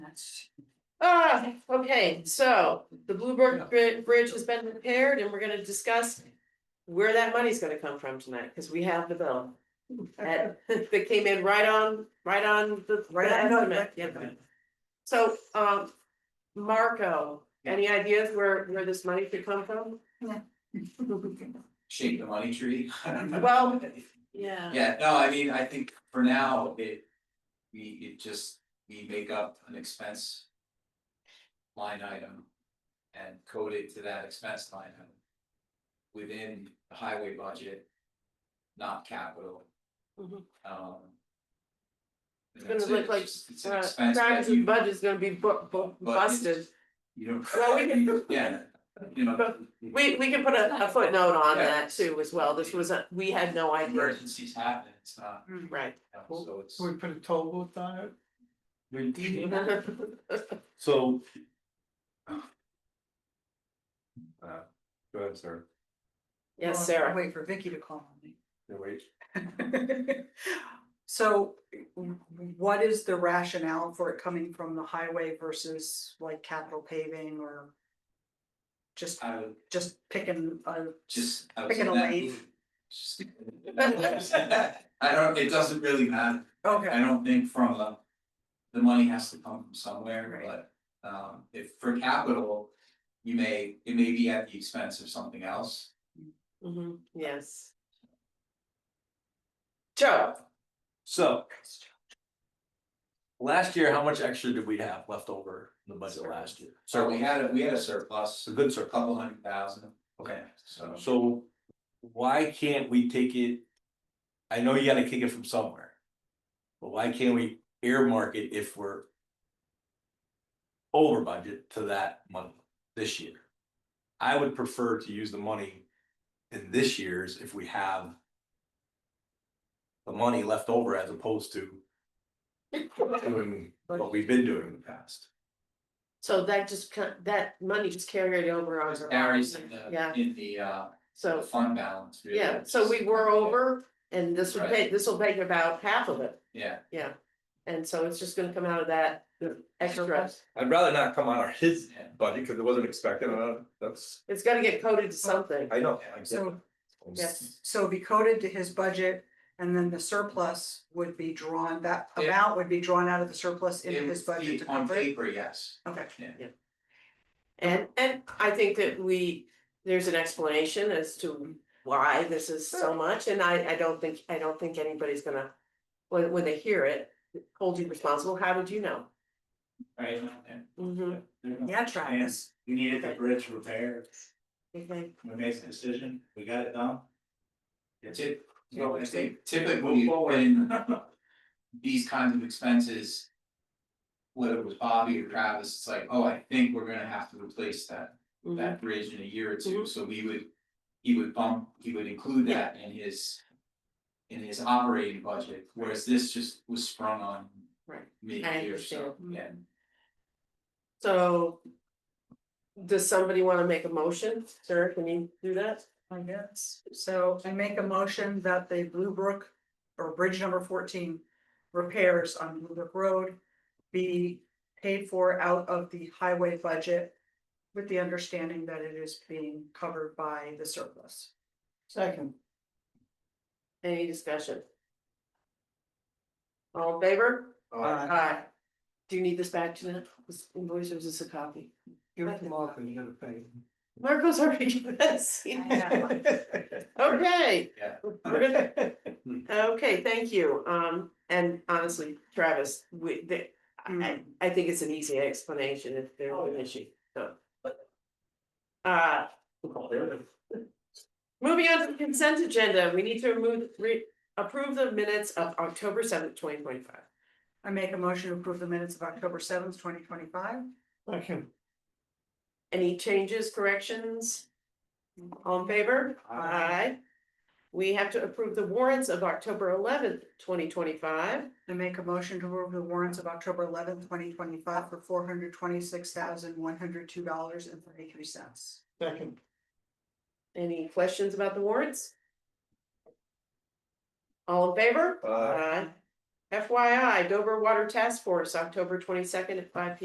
much. Ah, okay, so the Bluebird Bri- Bridge has been repaired and we're gonna discuss. Where that money's gonna come from tonight, cause we have the bill. That, that came in right on, right on the. Right the on, no, estimate, right. yeah. So, um, Marco, any ideas where, where this money could come from? shape the money tree. Well, uh, yeah. Yeah, no, I mean, I think for now, it, we, it just, we make up an expense. Line item. And code it to that expense line item. Within the highway budget. Not capital, Mhm. um. It's gonna look like, It's an Uh, expense that Travis's you, budget's gonna be bu- bu- But it's- busted, you don't. Well, we can- Yeah, you know. we, we can put a, a footnote on Yeah. that too as well, this was a, we had no idea, Emergencies happen, it's not, right? you know, so it's. we put a toll booth on it? So. Uh, go ahead, sir. Yes, Well, Sarah. Wait for Vicky to call on me. No, wait. So w- what is the rationale for it coming from the highway versus like capital paving or? Just, I would just picking a, just. I was Pick it in that away. mood. Just- I don't, it doesn't really matter, I okay, don't think from a, the money has to come from somewhere, Right. but, um, if for capital. You may, it may be at the expense of something else, Mhm, yes. Joe, So. Last year, how much extra did we have left over in the budget last year? so we had a, we had a surplus, It's a good a surplus. couple hundred thousand. Okay. So, So why can't we take it? I know you gotta kick it from somewhere. But why can't we earmark it if we're. Over budget to that month this year? I would prefer to use the money in this year's if we have. The money left over as opposed to doing what we've been doing in the past. so that just, ca- that money just carried over on. it her varies line. in Yeah, the, in the, uh, the so, fund balance, really. yeah, so we were over and this would Right. pay, this will pay about half of it, Yeah, yeah. And so it's just gonna come out of that extra, I'd rather not come out of his yeah, budget because it wasn't expected, uh, that's, it's gonna get coded to something. I know. so, Yes. so it'd be coded to his budget. And then the surplus would be drawn, that Yeah. amount would be drawn out of the surplus into It his would be budget to on cover it, paper, yes, okay. yeah. And, and I think that we, there's an explanation as to why this is so much, and I, I don't think, I don't think anybody's gonna. When, when they hear it, hold you responsible, how did you know? Right, Mm-hmm. Yeah, Travis. We needed the bridge repaired, Okay. we made the decision, we got it done. That's it. Yeah, I it's think typically when these kinds of expenses. Whether it was Bobby or Travis, it's like, oh, I think we're gonna have to replace that, Mm-hmm. that bridge in a year or two, so we would. He would bump, he would include that in his. In his operating budget, whereas this just was sprung on Right. mid-year, so, understand. Mm-hmm. yeah. So. Does somebody wanna make a motion, Sarah, can you do that? I guess, so I make a motion that the Blue Brook or Bridge number fourteen repairs on Blue Brook Road. Be paid for out of the highway budget with the understanding that it is being covered by the surplus. Second. Any discussion? All in favor? Aye. Uh, Do you need this back to them, this invoice, or is this a copy? Give it to Mark and you gotta pay. Marco's already given us. Okay. Yeah. We're good. Hmm. Okay, thank you, um, and honestly, Travis, we, the, Hmm. I, I think it's an easy explanation if there's Oh, an issue, so. Uh. Moving on to the consent agenda, we need to remove, re, approve the minutes of October seventh, twenty twenty five. I make a motion to approve the minutes of October seventh, twenty twenty five. Second. Any changes, corrections? All in favor? Aye. We have to approve the warrants of October eleventh, twenty twenty five. I make a motion to approve the warrants of October eleventh, twenty twenty five for four hundred twenty six thousand, one hundred two dollars and thirty three cents. Second. Any questions about the warrants? All in favor? Aye. FYI, Dover Water Task Force, October twenty second at five P